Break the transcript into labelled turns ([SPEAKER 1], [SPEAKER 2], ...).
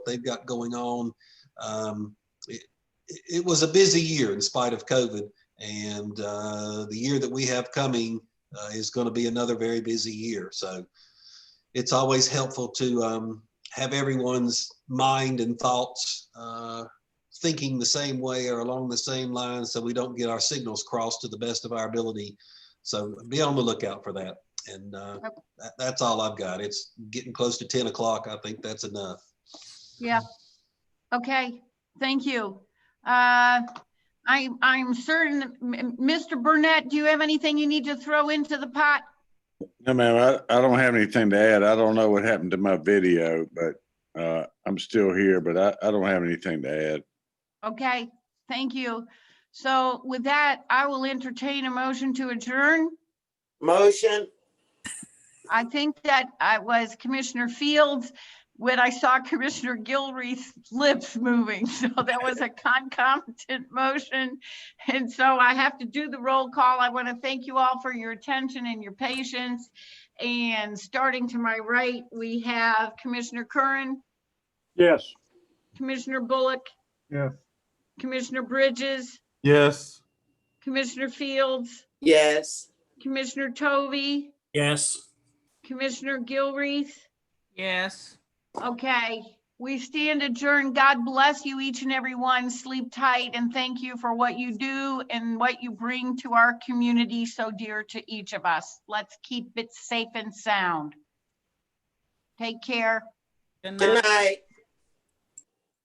[SPEAKER 1] they've got going on. Um, it, it was a busy year in spite of COVID, and uh, the year that we have coming uh, is going to be another very busy year. So it's always helpful to um, have everyone's mind and thoughts uh, thinking the same way or along the same lines so we don't get our signals crossed to the best of our ability. So be on the lookout for that. And uh, that, that's all I've got. It's getting close to 10 o'clock. I think that's enough.
[SPEAKER 2] Okay, thank you. Uh, I, I'm certain, that M- M- Mr. Burnett, do you have anything you need to throw into the pot?
[SPEAKER 3] No, ma'am, I, I don't have anything to add. I don't know what happened to my video, but, uh, I'm still here, but I, I don't have anything to add.
[SPEAKER 2] Okay, thank you. So with that, I will entertain a motion to adjourn.
[SPEAKER 4] Motion,
[SPEAKER 2] I think that I was Commissioner Fields when I saw Commissioner Gilreath's lips moving. So that was a concomitant motion. And so I have to do the roll call. I want to thank you all for your attention and your patience. And starting to my right, we have Commissioner Curran,
[SPEAKER 5] Yes.
[SPEAKER 2] Commissioner Bullock.
[SPEAKER 5] Yes.
[SPEAKER 2] Commissioner Bridges,
[SPEAKER 6] Yes.
[SPEAKER 2] Commissioner Fields,
[SPEAKER 4] yes.
[SPEAKER 2] Commissioner Tovey,
[SPEAKER 7] Yes.
[SPEAKER 2] Commissioner Gilreath.
[SPEAKER 8] Yes.
[SPEAKER 2] Okay, we stand adjourned. God bless you each and every one. Sleep tight and thank you for what you do and what you bring to our community so dear to each of us. Let's keep it safe and sound. Take care.
[SPEAKER 8] Good
[SPEAKER 4] Good
[SPEAKER 8] night.
[SPEAKER 4] night.